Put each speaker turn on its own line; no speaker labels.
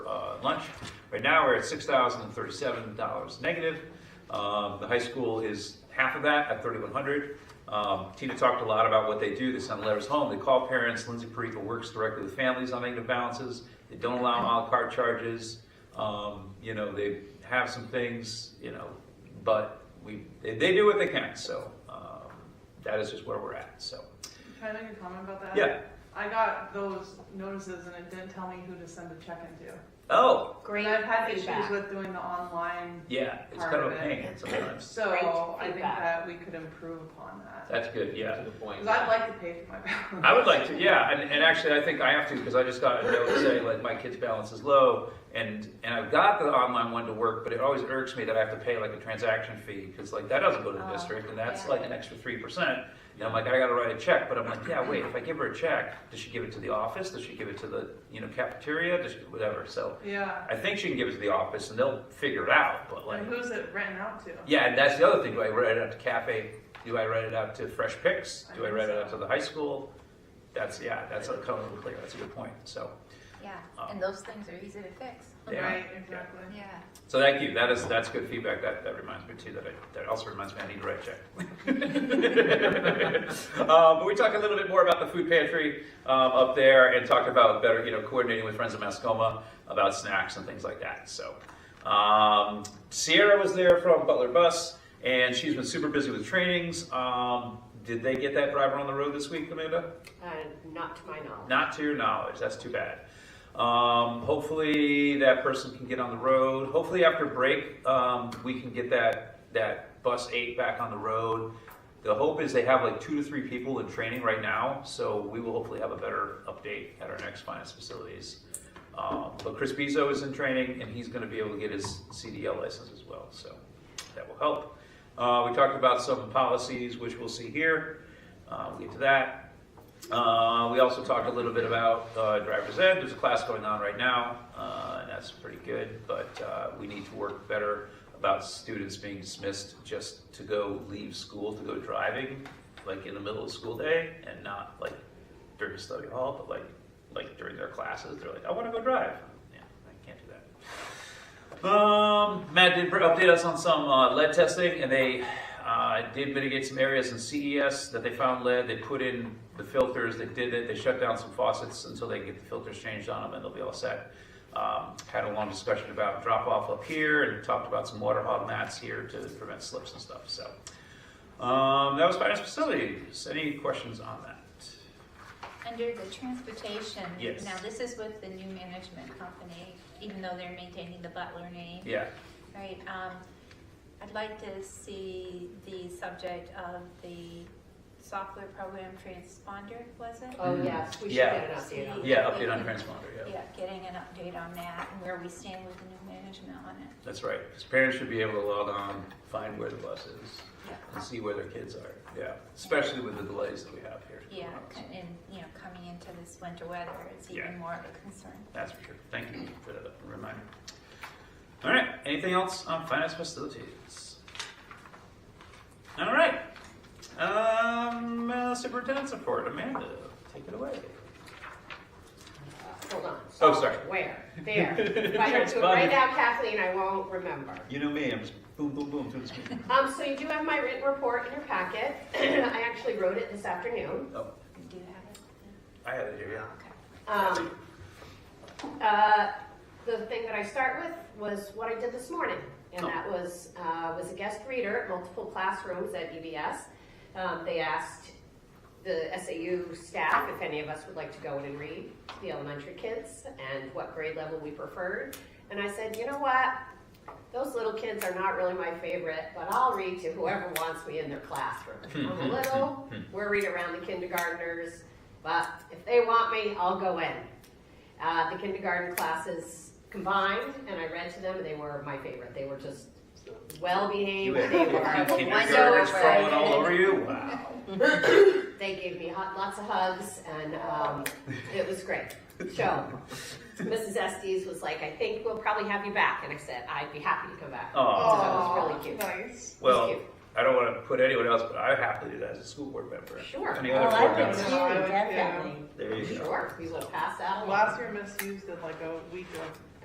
uh, lunch. Right now, we're at six thousand and thirty-seven dollars negative. Um, the high school is half of that at thirty-one hundred. Um, Tina talked a lot about what they do. They send letters home. They call parents. Lindsay Perica works directly with families on negative balances. They don't allow à la carte charges. Um, you know, they have some things, you know, but we, they, they do what they can. So, um, that is just where we're at. So,
Can I make a comment about that?
Yeah.
I got those notices and it didn't tell me who to send a check into.
oh,
Great
And I've had issues
feedback.
with doing the online,
yeah, it's
Part
kind of
of
a
it.
pain sometimes.
Great
so I think
feedback.
that we could improve upon that.
That's good, yeah.
To the point.
Because I'd like to pay for my balance.
I would like to, yeah, and, and actually, I think I have to, because I just got a note saying, like, my kid's balance is low, and, and I've got the online one to work, but it always irks me that I have to pay like a transaction fee, because like, that doesn't go to the
Oh,
district, and that's
yeah.
like an extra three percent. And I'm like, I gotta write a check, but I'm like, yeah, wait, if I give her a check, does she give it to the office, does she give it to the, you know, cafeteria, does she, whatever, so.
Yeah.
I think she can give it to the office, and they'll figure it out, but like.
And who's it renting out to?
Yeah, and that's the other thing. Do I write it out to Cafe? Do I write it out to Fresh Picks? Do I write it out to the high school? That's, yeah, that's a color clear. That's a good point. So,
Yeah,
Um,
and those things are easy to fix.
yeah.
Right,
yeah.
exactly.
Yeah.
So thank you. That is, that's good feedback. That, that reminds me too, that I, that also reminds me I need to write a check. uh, but we talk a little bit more about the food pantry um, up there and talk about better, you know, coordinating with friends of Mascoma about snacks and things like that. So um, Sierra was there from Butler Bus and she's been super busy with trainings. Um, did they get that driver on the road this week, Amanda?
Uh, not to my knowledge.
Not to your knowledge. That's too bad. Um, hopefully that person can get on the road. Hopefully after break, um, we can get that that bus eight back on the road. The hope is they have like two to three people in training right now, so we will hopefully have a better update at our next finance facilities. Um, but Chris Bezo is in training, and he's going to be able to get his CDL license as well, so that will help. Uh, we talked about some policies, which we'll see here. Uh, we'll get to that. Uh, we also talked a little bit about uh, driver's ed. There's a class going on right now, uh, and that's pretty good, but uh, we need to work better about students being dismissed just to go leave school to go driving, like in the middle of school day, and not like during study hall, but like like during their classes. They're like, I want to go drive. Yeah, I can't do that. Um, Matt did update us on some uh, lead testing, and they uh, did mitigate some areas in CES that they found lead. They put in the filters, they did it, they shut down some faucets until they get the filters changed on them, and they'll be all set. Um, had a long discussion about drop off up here, and talked about some water hog mats here to prevent slips and stuff. So um, that was finance facilities. Any questions on that?
Under the transportation.
Yes.
Now, this is with the new management company, even though they're maintaining the Butler name,
Yeah.
right? Um, I'd like to see the subject of the software program transponder, was it?
Oh, yes, we should
Yeah.
get an update on that.
Yeah, update on transponder. Yeah.
Yeah, getting an update on that and where we stand with the new management on it.
That's right. 'Cause parents should be able to log on, find where the bus is,
Yeah.
and see where their kids are. Yeah, especially with the delays that we have here.
Yeah, c- and, you know, coming into this winter weather, it's
Yeah.
even more of a concern.
That's for sure. Thank you for that reminder. All right, anything else on finance facilities? All right, um, uh, superintendent's report, Amanda, take it away.
Uh, Hold on.
Oh, sorry.
Where? There. If I don't do it
Transponder.
right now, Kathleen, I won't remember.
You know me, I'm just boom, boom, boom, doing this meeting.
Um, so you do have my written report in your packet. I actually wrote it this afternoon.
Oh,
We do have it.
I have it here, yeah.
Okay.
Um, uh, the thing that I start with was what I did this morning, and
Oh.
that was uh, was a guest reader at multiple classrooms at EBS. Um, they asked the SAU staff if any of us would like to go in and read the elementary kids and what grade level we preferred. And I said, you know what? Those little kids are not really my favorite, but I'll read to whoever wants me in their classroom. I'm a little, we're read around the kindergartners, but if they want me, I'll go in. Uh, the kindergarten classes combined, and I read to them, and they were my favorite. They were just well
You
behaved.
had
They were
kindergartners
so
falling all
excited.
over you? Wow.
They gave me hot, lots of hugs, and um, it was great. So, Mrs. Estes was like, "I think we'll probably have you back," and I said, "I'd be happy to come back."
Aw.
So it was really cute.
Nice.
Oh, Well,
It's cute.
I don't want to put anyone else, but I happily do that as a school board member.
Sure.
Any
Well,
other
I
board
would
members?
too,
Yeah.
definitely.
There you go.
Sure, we will pass out.
Last year, Miss used did like a week of